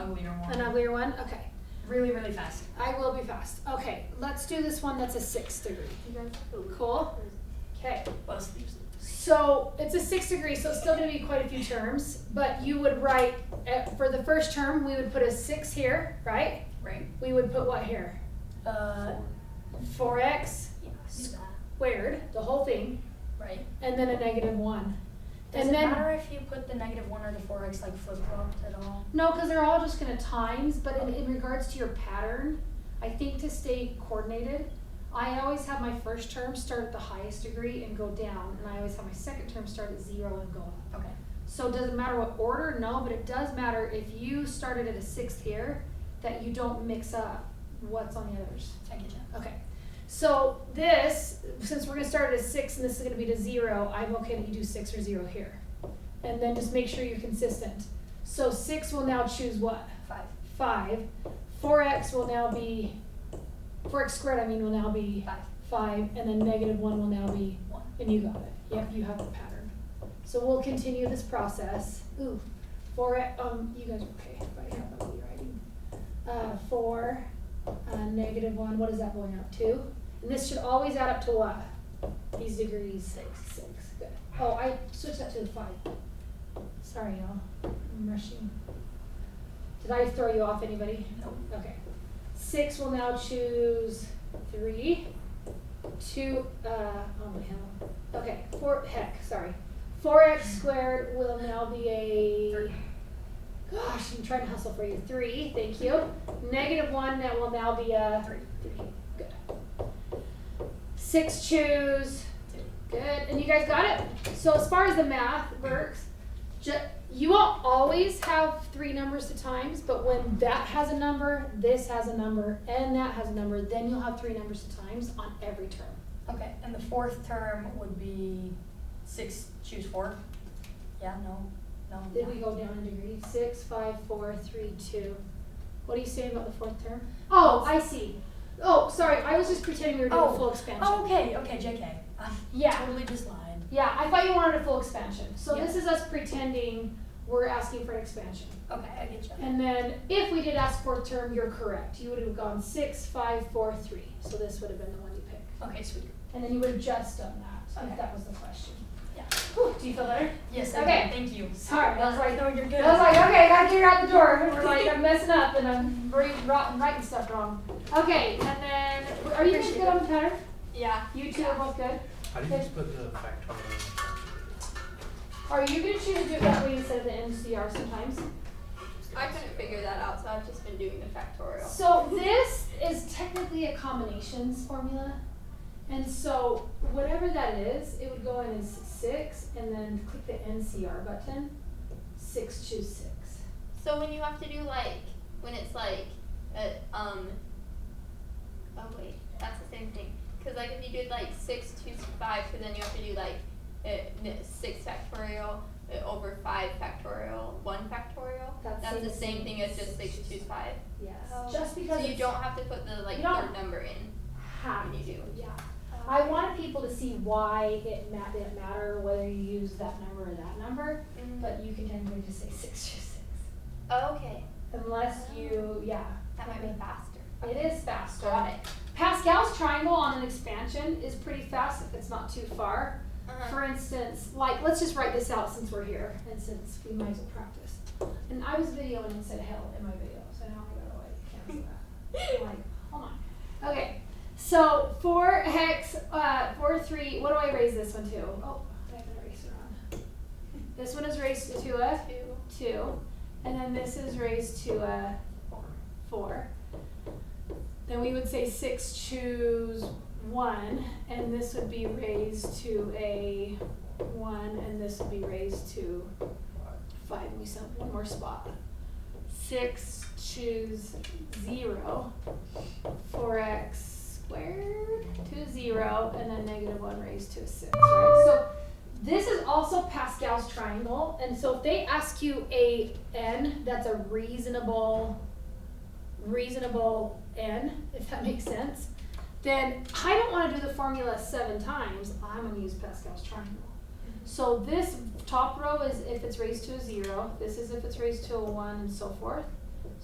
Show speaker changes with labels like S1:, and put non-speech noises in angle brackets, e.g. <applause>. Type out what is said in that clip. S1: uglier one.
S2: An uglier one? Okay.
S1: Really, really fast.
S2: I will be fast. Okay, let's do this one that's a six degree. Cool? Okay.
S1: Buzz leaves.
S2: So it's a six degree, so it's still gonna be quite a few terms, but you would write, uh, for the first term, we would put a six here, right?
S1: Right.
S2: We would put what here?
S1: Uh,
S2: Four x
S1: yes.
S2: squared, the whole thing,
S1: Right.
S2: and then a negative one.
S3: Does
S2: And
S3: it
S2: then-
S3: matter if you put the negative one or the four x like flip flopped at all?
S2: No, because they're all just gonna times, but in, in regards to your pattern, I think to stay coordinated, I always have my first term start at the highest degree and go down, and I always have my second term start at zero and go up.
S3: Okay.
S2: So it doesn't matter what order, no, but it does matter if you started at a sixth here, that you don't mix up what's on the others.
S3: I get you.
S2: Okay, so this, since we're gonna start at a six and this is gonna be to zero, I'm okay that you do six or zero here. And then just make sure you're consistent. So six will now choose what?
S3: Five.
S2: Five. Four X will now be, four X squared, I mean, will now be
S3: Five.
S2: five, and then negative one will now be,
S3: One.
S2: and you got it. Yep, you have the pattern. So we'll continue this process. Ooh, four, X- um, you guys are okay, if I have that rewriting. Uh, four, uh, negative one, what is that going up to? And this should always add up to what? These degrees, six, six, good. Oh, I switched that to the five. Sorry, y'all, I'm rushing. Did I throw you off, anybody?
S1: Nope.
S2: Okay. Six will now choose three. Two, uh, oh my hell. Okay, four, heck, sorry. Four X squared will now be a, gosh, I'm trying to hustle for you. Three, thank you. Negative one, that will now be a
S1: Three.
S2: three. Good. Six choose. Good, and you guys got it. So as far as the math works, ju- you won't always have three numbers to times, but when that has a number, this has a number, and that has a number, then you'll have three numbers to times on every term.
S3: Okay. And the fourth term would be six. Choose four. Yeah. No. No.
S2: Then
S3: yeah.
S2: we go down a degree. Six, five, four, three, two. What do you say about the fourth term? Oh, I see. Oh, sorry, I was just pretending we were doing
S3: Oh.
S2: a full expansion.
S3: Oh, okay. Okay. Jk. I
S2: Yeah.
S3: Totally just lied.
S2: Yeah, I thought you wanted a full expansion. So
S3: Yeah.
S2: this is us pretending we're asking for an expansion.
S3: Okay. I get you.
S2: And then if we did ask fourth term, you're correct. You would have gone six, five, four, three. So this would have been the one you picked.
S3: Okay. Sweet.
S2: And then you would have just done that,
S3: Okay.
S2: if that was the question.
S3: Yeah.
S2: Whew, do you feel better?
S3: Yes.
S2: Okay.
S3: Thank you.
S2: Sorry, I was like,
S3: no, you're good.
S2: I was like, okay, I gotta get her out the door. We're like, I'm messing up and I'm writing, wrong- writing stuff wrong. Okay, and then, are you guys good on the pattern?
S3: yeah.
S2: You two are both good?
S4: How do you just put the factorial?
S2: Are you gonna choose to do it that way instead of the NCR sometimes?
S5: I couldn't figure that out, so I've just been doing the factorial.
S2: So this is technically a combinations formula. And so whatever that is, it would go in as six and then click the NCR button. Six choose six.
S5: So when you have to do like when it's like a, um oh wait, that's the same thing. Cause like if you did like six two five, so then you have to do like uh, n- six factorial uh, over five factorial one factorial.
S2: That's
S5: That's
S2: same
S5: the
S2: as
S5: same thing as
S2: six.
S5: just six two five.
S2: Yes.
S5: Oh.
S2: Just
S5: So
S2: because
S5: you
S2: it's
S5: don't have to put the like
S2: You don't-
S5: third number in
S2: have
S5: when you do.
S2: Yeah. I wanted people to see why it ma- didn't matter whether you use that number or that number,
S5: Mm.
S2: but you can technically just say six choose six.
S5: Oh, okay,
S2: Unless you, yeah.
S5: that might be faster.
S2: It is faster.
S5: Got it.
S2: Pascal's triangle on an expansion is pretty fast if it's not too far.
S5: Uh-huh.
S2: For instance, like, let's just write this out since we're here and since we might as well practice. And I was videoing and said hell in my video, so now I gotta like cancel that.
S5: <laughs>
S2: I'm like, hold on. Okay, so four hex, uh, four three, what do I raise this one to? Oh, I have an eraser on. This one is raised to a
S5: Two.
S2: two, and then this is raised to a four. Then we would say six choose one, and this would be raised to a one, and this would be raised to five, and we still have one more spot. Six choose zero, four x squared to zero, and then negative one raised to a six, right? So this is also Pascal's triangle, and so if they ask you a n, that's a reasonable, reasonable n, if that <laughs> makes sense. Then I don't want to do the formula seven times. I'm going to use Pascal's triangle. So this top row is if it's raised to a zero. This is if it's raised to a one, and so forth.